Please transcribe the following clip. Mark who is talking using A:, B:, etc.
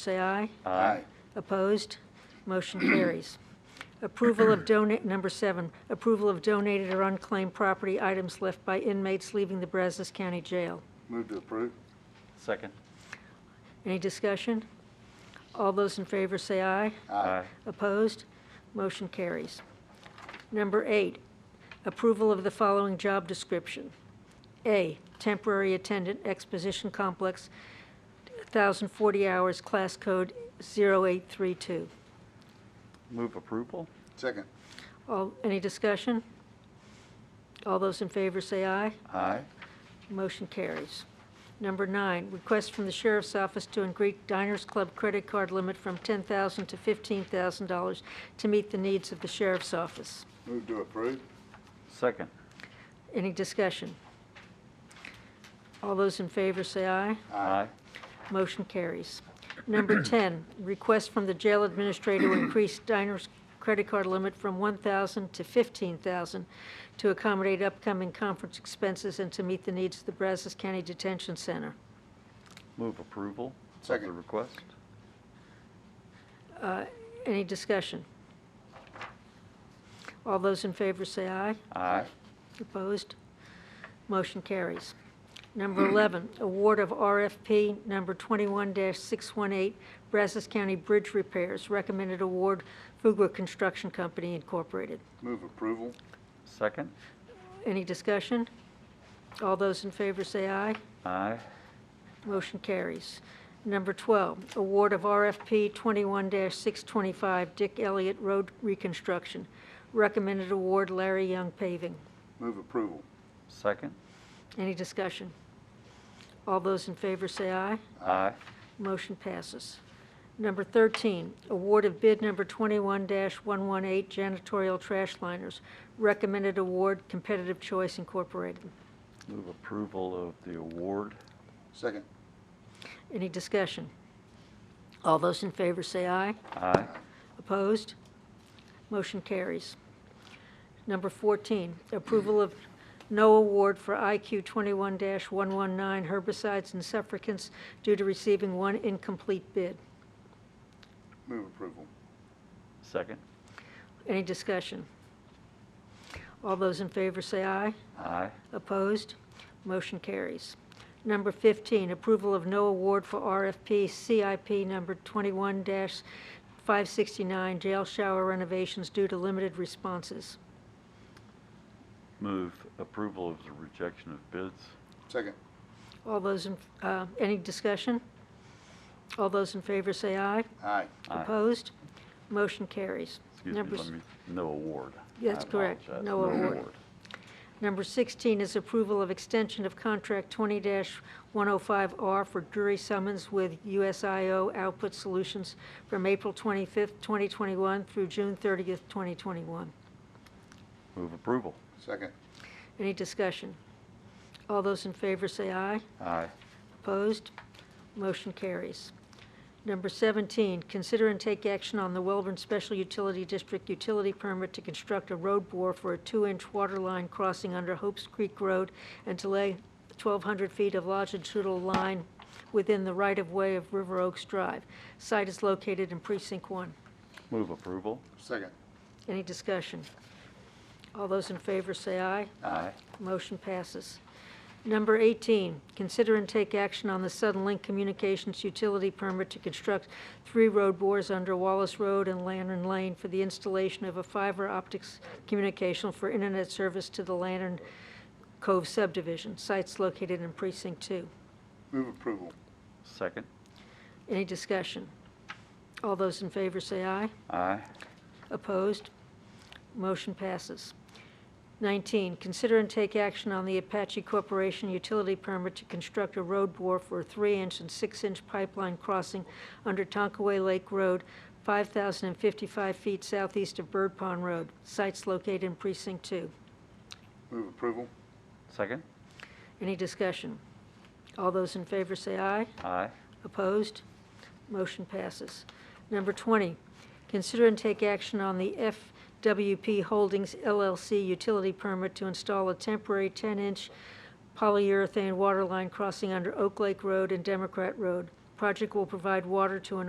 A: say aye.
B: Aye.
A: Opposed? Motion carries. Approval of donate, number seven, approval of donated or unclaimed property items left by inmates leaving the Brazos County Jail.
B: Move to approve.
C: Second.
A: Any discussion? All those in favor say aye.
C: Aye.
A: Opposed? Motion carries. Number eight, approval of the following job description. A, temporary attendant exposition complex, 1,040 hours, class code 0832.
C: Move approval?
B: Second.
A: All, any discussion? All those in favor say aye.
C: Aye.
A: Motion carries. Number nine, request from the Sheriff's Office to increase Diners Club credit card limit from $10,000 to $15,000 to meet the needs of the Sheriff's Office.
B: Move to approve.
C: Second.
A: Any discussion? All those in favor say aye.
C: Aye.
A: Motion carries. Number 10, request from the jail administrator to increase diner's credit card limit from 1,000 to 15,000 to accommodate upcoming conference expenses and to meet the needs of the Brazos County Detention Center.
C: Move approval? Of the
B: Second.
C: request?
A: Uh, Any discussion? All those in favor say aye.
C: Aye.
A: Opposed? Motion carries. Number 11, award of RFP number 21-618, Brazos County Bridge Repairs, recommended award, Fugler Construction Company Incorporated.
B: Move approval.
C: Second.
A: Any discussion? All those in favor say aye.
C: Aye.
A: Motion carries. Number 12, award of RFP 21-625, Dick Elliott Road Reconstruction, recommended award, Larry Young Paving.
B: Move approval.
C: Second.
A: Any discussion? All those in favor say aye.
C: Aye.
A: Motion passes. Number 13, award of bid number 21-118 janitorial trash liners. Recommended award, Competitive Choice Incorporated.
C: Move approval of the award?
B: Second.
A: Any discussion? All those in favor say aye.
C: Aye.
A: Opposed? Motion carries. Number 14, approval of no award for IQ 21-119 herbicides and suffragants due to receiving one incomplete bid.
B: Move approval.
C: Second.
A: Any discussion? All those in favor say aye.
C: Aye.
A: Opposed? Motion carries. Number 15, approval of no award for RFP CIP number 21-569 jail shower renovations due to limited responses.
C: Move approval of the rejection of bids?
B: Second.
A: All those, in uh, any discussion? All those in favor say aye.
B: Aye.
C: Aye.
A: Opposed? Motion carries.
C: Excuse me,
A: Number s-
C: let me, no award.
A: That's
C: I
A: correct.
C: apologize.
A: No award. Number 16 is approval of extension of contract 20-105R for jury summons with USIO Output Solutions from April 25th, 2021 through June 30th, 2021.
C: Move approval?
B: Second.
A: Any discussion? All those in favor say aye.
C: Aye.
A: Opposed? Motion carries. Number 17, consider and take action on the Welborn Special Utility District utility permit to construct a road bore for a two-inch water line crossing under Hopes Creek Road and to lay 1,200 feet of longitudinal line within the right-of-way of River Oaks Drive. Site is located in Precinct 1.
C: Move approval?
B: Second.
A: Any discussion? All those in favor say aye.
C: Aye.
A: Motion passes. Number 18, consider and take action on the Sudden Link Communications Utility Permit to construct three road bores under Wallace Road and Lantern Lane for the installation of a fiber optics communication for internet service to the Lantern Cove subdivision, sites located in Precinct 2.
B: Move approval.
C: Second.
A: Any discussion? All those in favor say aye.
C: Aye.
A: Opposed? Motion passes. 19, consider and take action on the Apache Corporation utility permit to construct a road bore for a 3-inch and 6-inch pipeline crossing under Tonkaway Lake Road, 5,055 feet southeast of Bird Pond Road. Sites located in Precinct 2.
B: Move approval.
C: Second.
A: Any discussion? All those in favor say aye.
C: Aye.
A: Opposed? Motion passes. Number 20, consider and take action on the FWP Holdings LLC utility permit to install a temporary 10-inch polyurethane water line crossing under Oak Lake Road and Democrat Road. Project will provide water to an